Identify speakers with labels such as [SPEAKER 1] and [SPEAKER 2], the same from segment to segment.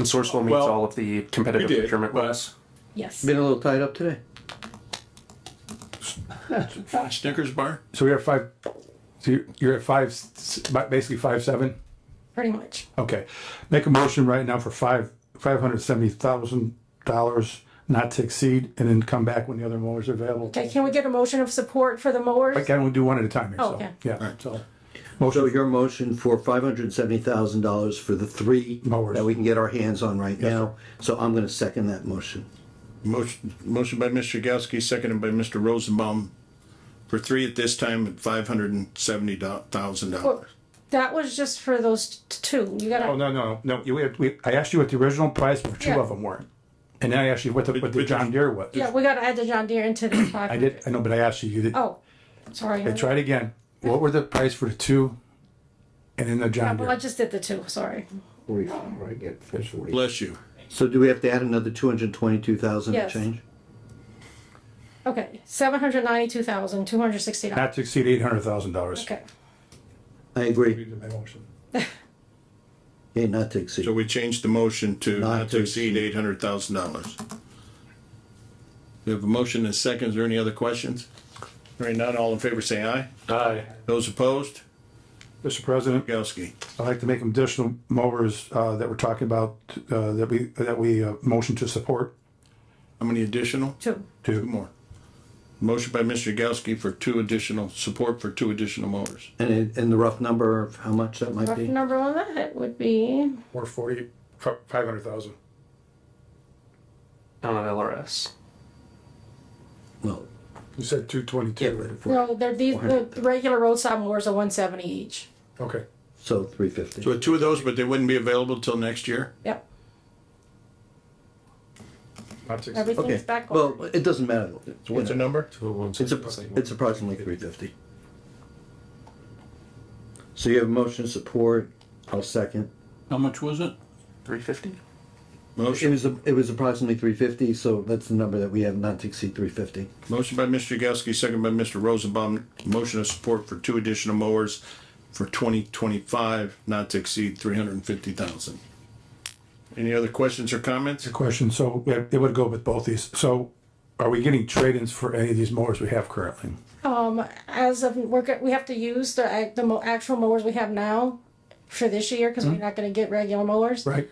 [SPEAKER 1] Consortium meets
[SPEAKER 2] Well,
[SPEAKER 1] all of the competitive
[SPEAKER 2] we did,
[SPEAKER 1] procurement
[SPEAKER 2] but-
[SPEAKER 1] laws.
[SPEAKER 3] Yes.
[SPEAKER 4] Been a little tied up today.
[SPEAKER 2] Snickers bar?
[SPEAKER 5] So we are five, so you're- you're at five, s- s- basically five, seven?
[SPEAKER 3] Pretty much.
[SPEAKER 5] Okay. Make a motion right now for five, five hundred seventy thousand dollars not to exceed and then come back when the other mowers are available.
[SPEAKER 3] Okay, can we get a motion of support for the mowers?
[SPEAKER 5] Again, we'll do one at a time here,
[SPEAKER 3] Oh,
[SPEAKER 5] so,
[SPEAKER 3] okay.
[SPEAKER 5] yeah, so.
[SPEAKER 4] So
[SPEAKER 5] Motion,
[SPEAKER 4] your motion for five hundred and seventy thousand dollars for the three
[SPEAKER 5] Mowers.
[SPEAKER 4] that we can get our hands on right now. So I'm gonna second that motion.
[SPEAKER 2] Motion, motion by Mr. Yagowski, seconded by Mr. Rosenbaum for three at this time at five hundred and seventy thousand dollars.
[SPEAKER 3] That was just for those t- two. You
[SPEAKER 5] oh,
[SPEAKER 3] gotta,
[SPEAKER 5] no, no, no, you, we, had- we- I asked you what the original price for two
[SPEAKER 3] Yeah.
[SPEAKER 5] of them were. And then I asked you what the, what the
[SPEAKER 2] Which-
[SPEAKER 5] John Deere was.
[SPEAKER 3] yeah, we gotta add the John Deere into the five.
[SPEAKER 5] I did, I know, but I asked you, you did,
[SPEAKER 3] Oh, sorry.
[SPEAKER 5] okay, try it again. What were the price for the two and then the
[SPEAKER 3] Yeah,
[SPEAKER 5] John
[SPEAKER 3] Well, I
[SPEAKER 5] Deere?
[SPEAKER 3] just did the two, sorry.
[SPEAKER 2] Bless you.
[SPEAKER 4] So do we have to add another two hundred and twenty-two thousand to
[SPEAKER 3] Yes.
[SPEAKER 4] change?
[SPEAKER 3] Okay, seven hundred ninety-two thousand, two hundred sixty dollars.
[SPEAKER 5] Not to exceed eight hundred thousand dollars.
[SPEAKER 3] Okay,
[SPEAKER 4] I agree.
[SPEAKER 5] Well,
[SPEAKER 4] Okay, not to
[SPEAKER 2] So
[SPEAKER 4] exceed.
[SPEAKER 2] we changed the motion to
[SPEAKER 4] Not
[SPEAKER 2] not
[SPEAKER 4] to
[SPEAKER 2] to exceed eight hundred thousand dollars. We have a motion and a second. Is there any other questions? Hearing none, all in favor say aye.
[SPEAKER 5] Aye.
[SPEAKER 2] Those opposed?
[SPEAKER 5] Mr. President?
[SPEAKER 2] Yagowski.
[SPEAKER 5] I'd like to make additional mowers uh, that we're talking about, uh, that we, that we uh, motion to support
[SPEAKER 2] How many additional?
[SPEAKER 3] two.
[SPEAKER 2] Two more. Motion by Mr. Yagowski for two additional, support for two additional mowers.
[SPEAKER 4] And, it- and the rough number of how much that might
[SPEAKER 3] Rough
[SPEAKER 4] be?
[SPEAKER 3] number on that would be,
[SPEAKER 5] or 40, 500,000.
[SPEAKER 1] Down at LRS.
[SPEAKER 4] Well,
[SPEAKER 5] You said 222.
[SPEAKER 3] no, they're these, the regular roadside mowers are one seventy each.
[SPEAKER 5] Okay.
[SPEAKER 4] so three fifty.
[SPEAKER 2] So two of those, but they wouldn't be available till next year?
[SPEAKER 3] Yep,
[SPEAKER 5] Not to exceed.
[SPEAKER 3] everything's
[SPEAKER 4] Okay,
[SPEAKER 3] back on.
[SPEAKER 4] well, it doesn't matter.
[SPEAKER 2] What's the number?
[SPEAKER 4] It's, a- it's approximately three fifty. So you have motion support, I'll second.
[SPEAKER 6] How much was it?
[SPEAKER 1] 350?
[SPEAKER 4] It
[SPEAKER 2] Motion,
[SPEAKER 4] was, a- it was approximately three fifty, so that's the number that we have not to exceed three fifty.
[SPEAKER 2] motion by Mr. Yagowski, second by Mr. Rosenbaum, motion of support for two additional mowers for twenty twenty-five, not to exceed three hundred and fifty thousand. Any other questions or comments?
[SPEAKER 5] Question, so yeah, it would go with both these. So are we getting trade-ins for any of these mowers we have currently?
[SPEAKER 3] Um, as of, we're, go- we have to use the, ac- the mo- actual mowers we have now for this year, cause we're not gonna get regular mowers.
[SPEAKER 5] Hmm? Right?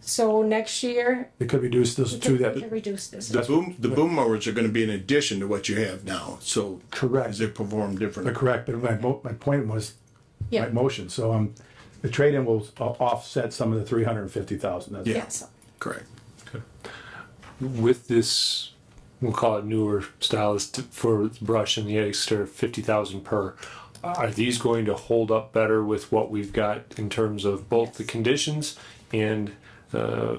[SPEAKER 3] So next year,
[SPEAKER 5] It could reduce this to
[SPEAKER 3] we can
[SPEAKER 5] that.
[SPEAKER 3] reduce this.
[SPEAKER 2] The boom, the boom mowers are gonna be in addition to what you have now, so.
[SPEAKER 5] Correct.
[SPEAKER 2] As they perform differently.
[SPEAKER 5] Correct, but my, mo- my point was my
[SPEAKER 3] Yeah,
[SPEAKER 5] motion. So um, the trade-in will uh, offset some of the 350,000. That's-
[SPEAKER 2] Yeah.
[SPEAKER 3] yes.
[SPEAKER 2] Correct.
[SPEAKER 7] with this, we'll call it newer stylist for brush and the extra fifty thousand per. Are these going to hold up better with what we've got in terms of both the conditions and, uh,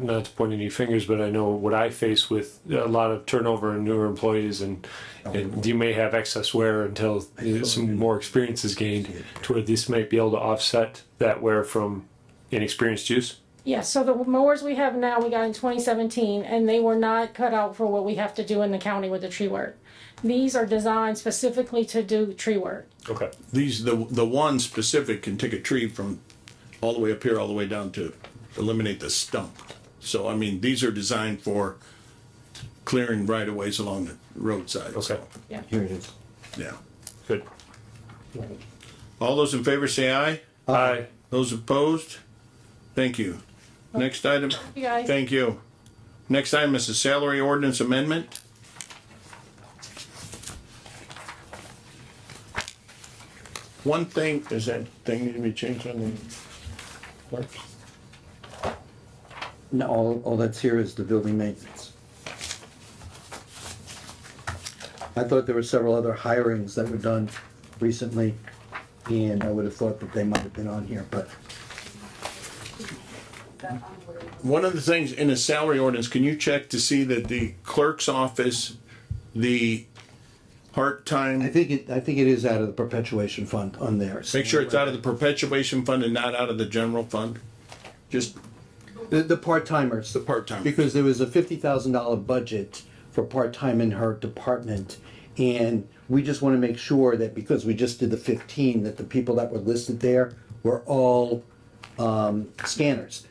[SPEAKER 7] not to point any fingers, but I know what I face with a lot of turnover and newer employees and, and you may have excess wear until some more experience is gained to where this might be able to offset that wear from inexperienced use.
[SPEAKER 3] Yeah, so the mowers we have now, we got in twenty seventeen, and they were not cut out for what we have to do in the county with the tree work. These are designed specifically to do tree work.
[SPEAKER 7] Okay.
[SPEAKER 2] These, the, the one specific can take a tree from all the way up here, all the way down to eliminate the stump. So, I mean, these are designed for clearing right of ways along the roadside,
[SPEAKER 7] Okay,
[SPEAKER 2] so,
[SPEAKER 4] Here it is.
[SPEAKER 2] yeah.
[SPEAKER 7] good.
[SPEAKER 2] All those in favor say aye.
[SPEAKER 7] Aye.
[SPEAKER 2] Those opposed? Thank you. Next item,
[SPEAKER 3] You guys.
[SPEAKER 2] thank you. Next item is the salary ordinance amendment. One thing, is that thing need to be changed on the clerk?
[SPEAKER 4] No, all, all that's here is the building maintenance. I thought there were several other hirings that were done recently, and I would have thought that they might have been on here, but
[SPEAKER 2] One of the things in the salary ordinance, can you check to see that the clerk's office, the
[SPEAKER 4] I
[SPEAKER 2] part-time,
[SPEAKER 4] think it, I think it is out of the perpetuation fund on there.
[SPEAKER 2] make sure it's out of the perpetuation fund and not out of the general fund? Just
[SPEAKER 4] The, the part-timers. The
[SPEAKER 2] part-timers.
[SPEAKER 4] Because there was a fifty thousand dollar budget for part-time in her department. And we just wanna make sure that because we just did the fifteen, that the people that were listed there were all, um, scanners.